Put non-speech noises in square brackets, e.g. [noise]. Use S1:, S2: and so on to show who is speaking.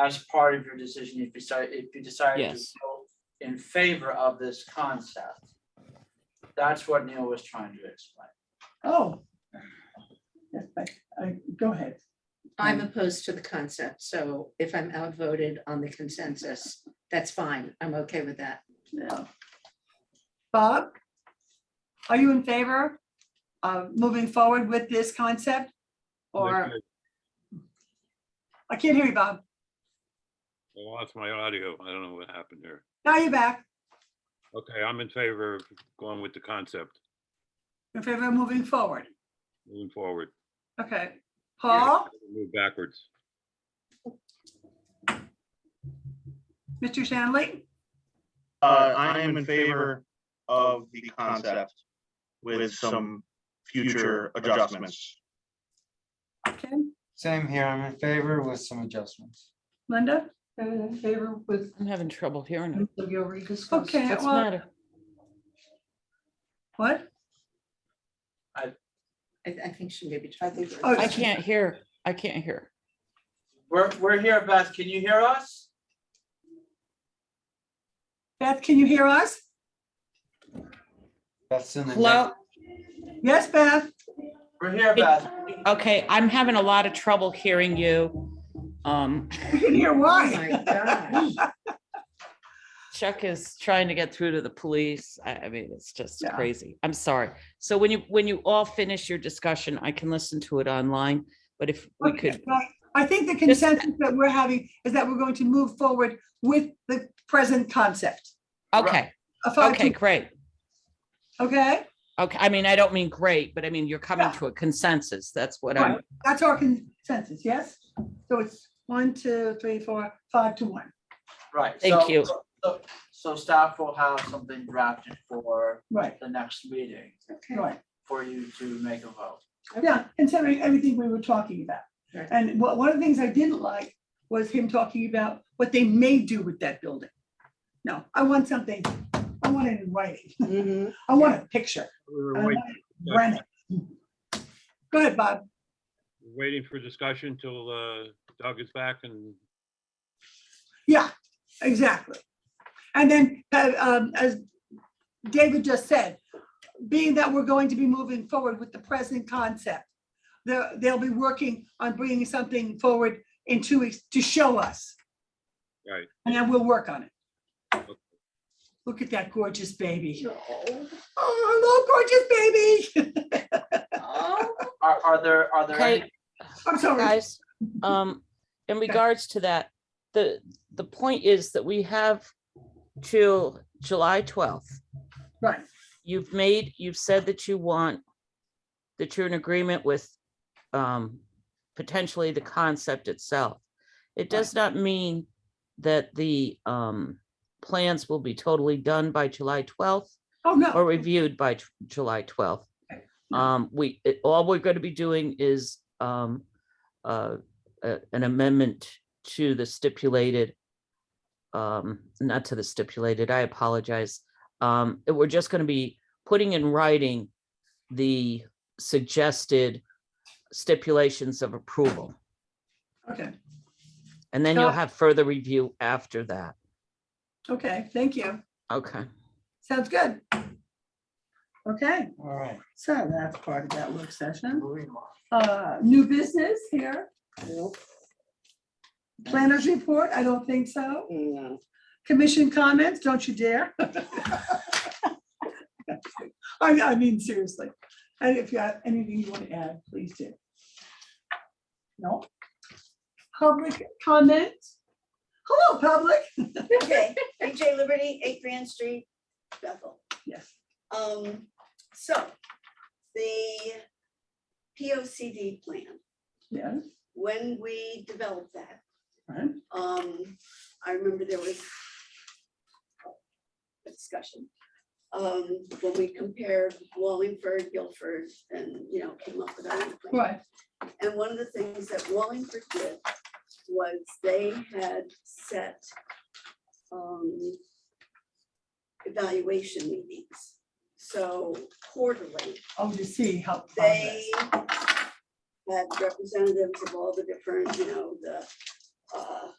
S1: as part of your decision if you decide, if you decide to
S2: Yes.
S1: vote in favor of this concept. That's what Neil was trying to explain.
S3: Oh. Yes, I, I, go ahead.
S4: I'm opposed to the concept, so if I'm outvoted on the consensus, that's fine. I'm okay with that.
S3: Yeah. Bob? Are you in favor of moving forward with this concept? Or, I can't hear you, Bob.
S5: I lost my audio. I don't know what happened there.
S3: Now you're back.
S5: Okay, I'm in favor of going with the concept,
S3: In favor of moving forward.
S5: moving forward.
S3: Okay. Paul,
S5: Move backwards.
S3: Mr. Shanley,
S6: Uh, I am in favor of the concept with some future adjustments.
S3: Ken,
S7: Same here, I'm in favor with some adjustments.
S3: Linda? In favor with.
S2: I'm having trouble hearing it.
S3: Okay,
S2: What's the
S3: well,
S2: matter?
S3: what?
S4: I, I think she maybe. I think.
S3: Oh,
S2: I can't hear. I can't hear.
S1: We're, we're here, Beth. Can you hear us?
S3: Beth, can you hear us?
S7: That's in the.
S2: Hello?
S3: Yes, Beth?
S1: We're here, Beth.
S2: Okay, I'm having a lot of trouble hearing you. Um,
S3: We can hear
S4: Oh,
S3: why.
S4: [laughs] my gosh.
S2: Chuck is trying to get through to the police. I, I mean, it's just
S3: Yeah.
S2: crazy. I'm sorry. So when you, when you all finish your discussion, I can listen to it online, but if we
S3: Okay,
S2: could,
S3: well, I think the
S2: Just-
S3: consensus that we're having is that we're going to move forward with the present concept.
S2: okay,
S3: A five
S2: okay,
S3: to-
S2: great.
S3: Okay,
S2: Okay, I mean, I don't mean great, but I mean, you're coming
S3: Yeah.
S2: to a consensus. That's what I'm,
S3: Right. that's our consensus, yes? So it's one, two, three, four, five to one,
S1: Right.
S2: Thank
S1: so-
S2: you.
S1: so- So staff will have something drafted for
S3: right,
S1: the next meeting
S3: right.
S1: for you to make a vote.
S3: Yeah, considering everything we were talking about.
S4: Right.
S3: And what, one of the things I didn't like was him talking about what they may do with that building. No, I want something, I want it in writing,
S4: Mhm.
S3: I want a picture.
S5: We
S3: I
S5: We're
S3: want
S5: wait-
S3: it rented. Go ahead, Bob.
S5: waiting for discussion till uh, Doug is back and
S3: Yeah, exactly. And then, uh, um, as David just said, being that we're going to be moving forward with the present concept, they'll, they'll be working on bringing something forward in two weeks to show us,
S5: right.
S3: and then we'll work on it. Look at that gorgeous baby. Oh, hello, gorgeous baby. [laughs]
S1: Are, are there, are there any
S2: okay,
S3: I'm sorry.
S2: guys, um, in regards to that, the, the point is that we have till July twelfth.
S3: Right,
S2: you've made, you've said that you want, that you're in agreement with um, potentially the concept itself. It does not mean that the um, plans will be totally done by July twelfth
S3: oh,
S2: or
S3: no,
S2: reviewed by Ju- July twelfth.
S3: Okay.
S2: Um, we, it- all we're going to be doing is um, uh, a- an amendment to the stipulated, um, not to the stipulated, I apologize. Um, it- we're just going to be putting in writing the suggested stipulations of approval.
S3: okay,
S2: And then you'll
S3: Got-
S2: have further review after that.
S3: okay, thank you.
S2: Okay.
S3: Sounds good. Okay.
S7: All right.
S3: So that's part of that work session.
S1: moving on?
S3: Uh, New business here? Planners report? I don't think so.
S8: Mm-hmm.
S3: Commission comments? Don't you dare. [laughs] I, I mean, seriously. And if you have anything you want to add, please do. No? Public comment? Hello, public.
S8: [laughs] Okay, AJ Liberty, eight Grand Street, Bethel.
S3: Yes.
S8: Um, so the P O C D plan,
S3: Yeah.
S8: when we developed that,
S3: Right.
S8: um, I remember there was a discussion. Um, when we compared Wallingford, Guilford, and, you know, came up with our own plan.
S3: Right.
S8: And one of the things that Wallingford did was they had set um, evaluation meetings. So quarterly,
S3: Oh, to see how.
S8: they had representatives of all the different, you know, the uh,